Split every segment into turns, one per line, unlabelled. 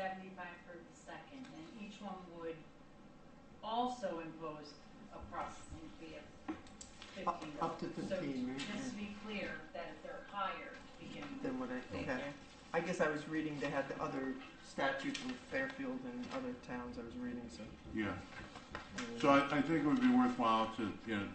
seventy-five for the second, and each one would also impose a processing fee of fifteen dollars.
Up- up to 15, right,
So just
yeah.
to be clear, that if they're higher to begin with.
Then what I,
Thank
okay.
you.
I guess I was reading they had the other statutes in Fairfield and other towns I was reading, so.
Yeah,
uh,
so I, I think it would be worthwhile to, you know,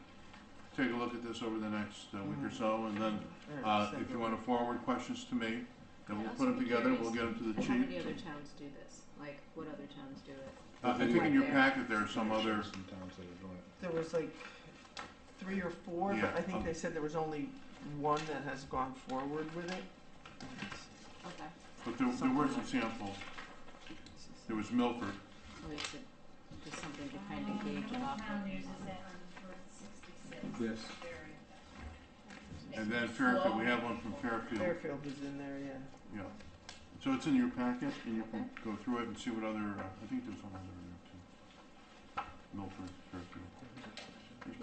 take a look at this over the next uh, week or so, and then,
alright,
uh,
send
if you
it.
wanna forward questions to me, then we'll
I'd
put
also
them
be
together, we'll
curious
get them to the
How many
chief.
other towns do this? Like, what other towns do it?
Uh, I think in
Right
your
there.
packet, there are some other,
Some towns that are doing it.
There was like three or four,
Yeah,
but I think
um,
they said there was only one that has gone forward with it.
Okay.
but there, there were some samples, there was Milford,
Or you should, just something to kind of gauge it
Um, Northern
off of.
Town uses that on Route sixty-six.
Yes.
Very effective.
and then
It's
Fairfield, we
slow.
have one from Fairfield,
Fairfield was in there, yeah.
yeah. So it's in your packet, and you can go through it and see what other, uh, I think there's one other in there too. Milford, Fairfield.
Mm-hmm.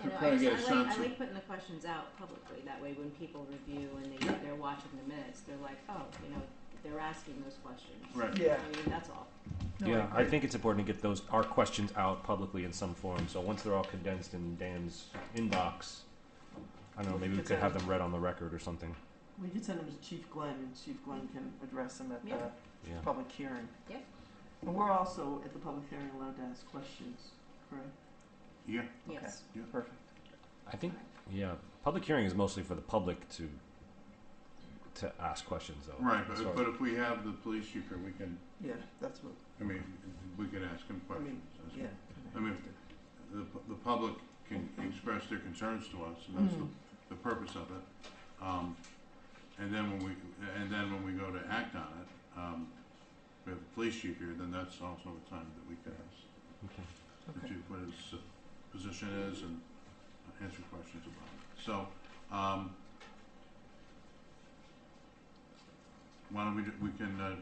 Yeah,
Just
no, I
trying to get a
just- I
sense
like, I
of-
like putting the questions out publicly, that way when people review and they,
Yeah.
they're watching the minutes, they're like, oh, you know, they're asking those questions.
Right.
Yeah.
I mean, that's all.
No,
Yeah, I
agree.
think it's important to get those, our questions out publicly in some form, so once they're all condensed in Dan's inbox, I don't know, maybe we could have them read on the record or something,
We could send them to Chief Glenn, and Chief Glenn can address them at
Yeah.
the
yeah.
public hearing.
Yeah.
And we're also, at the public hearing, allowed to ask questions, correct?
Yeah,
Yes.
Perfect.
I think, yeah, public hearing is mostly for the public to, to ask questions though.
right,
That's
but,
what-
but if we have the police chief here, we can,
Yeah, that's what,
I mean, we could ask him
I
questions.
mean,
That's-
yeah.
I mean, The, pu- the public can express their concerns to us, and that's the,
Mhm.
the purpose of it. Um, and then when we, and then when we go to act on it, um, we have the police chief here, then that's also a time that we can ask
Okay.
the
Okay.
chief what his uh, position is and uh, answer questions about it. So, um, why don't we, do- we can, uh,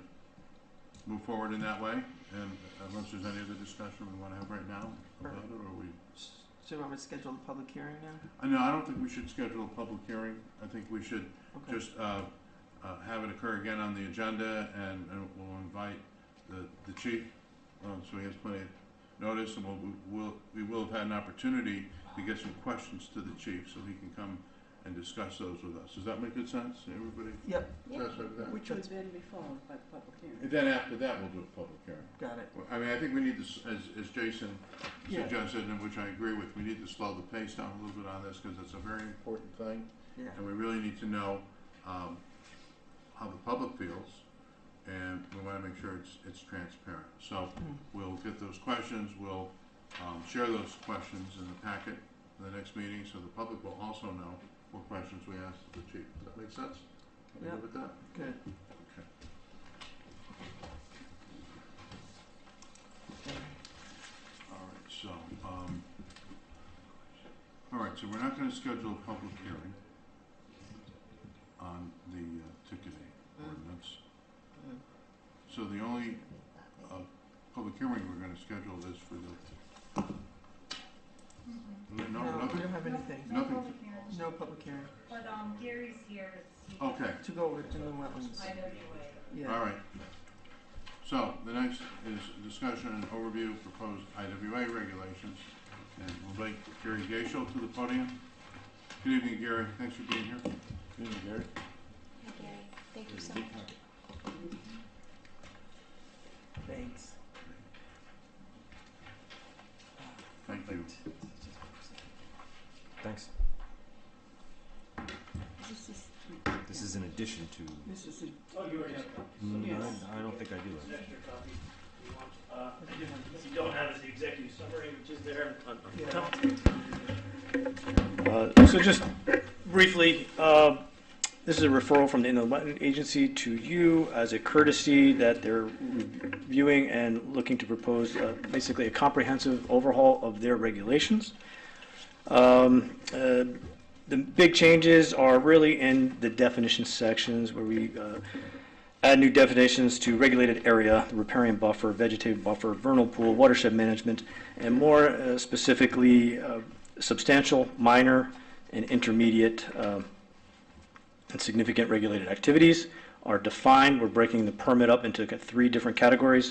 move forward in that way, and unless there's any other discussion we wanna have right now about it, or we?
S- So you want me to schedule the public hearing now?
I know, I don't think we should schedule a public hearing, I think we should
Okay.
just, uh, uh, have it occur again on the agenda, and, and we'll invite the, the chief, um, so he has plenty of notice, and we'll, we'll, we will have had an opportunity to get some questions to the chief, so he can come and discuss those with us, does that make good sense, everybody?
Yep.
satisfied with that?
Which one's,
And then after that, we'll do a public hearing.
got it.
Well, I mean, I think we need to, s- as, as Jason
Yeah.
suggested, and which I agree with, we need to slow the pace down a little bit on this, cause it's a very important thing.
Yeah.
And we really need to know, um, how the public feels, and we wanna make sure it's, it's transparent. So,
Mm.
we'll get those questions, we'll, um, share those questions in the packet for the next meeting, so the public will also know what questions we asked the chief. Does that make sense? Are we
Yeah.
good with that?
Good.
Okay. Alright, so, um, alright, so we're not gonna schedule a public hearing on the uh, ticketing ordinance.
Mm.
So the only, uh, public hearing we're gonna schedule is for the,
Mhm.
no,
No, we
nothing,
don't have anything.
No
Nothing.
public hearing.
No public hearing.
But, um, Gary's here, it's, he, I
okay,
To go over to inland wetlands.
know you would.
Yeah.
alright. So, the next is discussion and overview of proposed IWA regulations, and we'll invite Gary Gaishel to the podium. Good evening, Gary, thanks for being here.
Good evening, Gary.
Hi Gary, thank you so much.
Thanks.
Thank you.
Thanks. This is in addition to.
This is a.
Mm,
Yes.
I I don't think I do that.
If Uh, you don't have is the executive summary, which is there on
Yeah.
uh, So just briefly, uh, this is a referral from the Inland Wetland Agency to you as a courtesy that they're reviewing and looking to propose uh, basically a comprehensive overhaul of their regulations. Um, uh, The big changes are really in the definition sections where we uh, add new definitions to regulated area, the riparian buffer, vegetative buffer, vernal pool, watershed management, and more uh, specifically, uh, substantial, minor, and intermediate um, and significant regulated activities are defined. We're breaking the permit up into three different categories.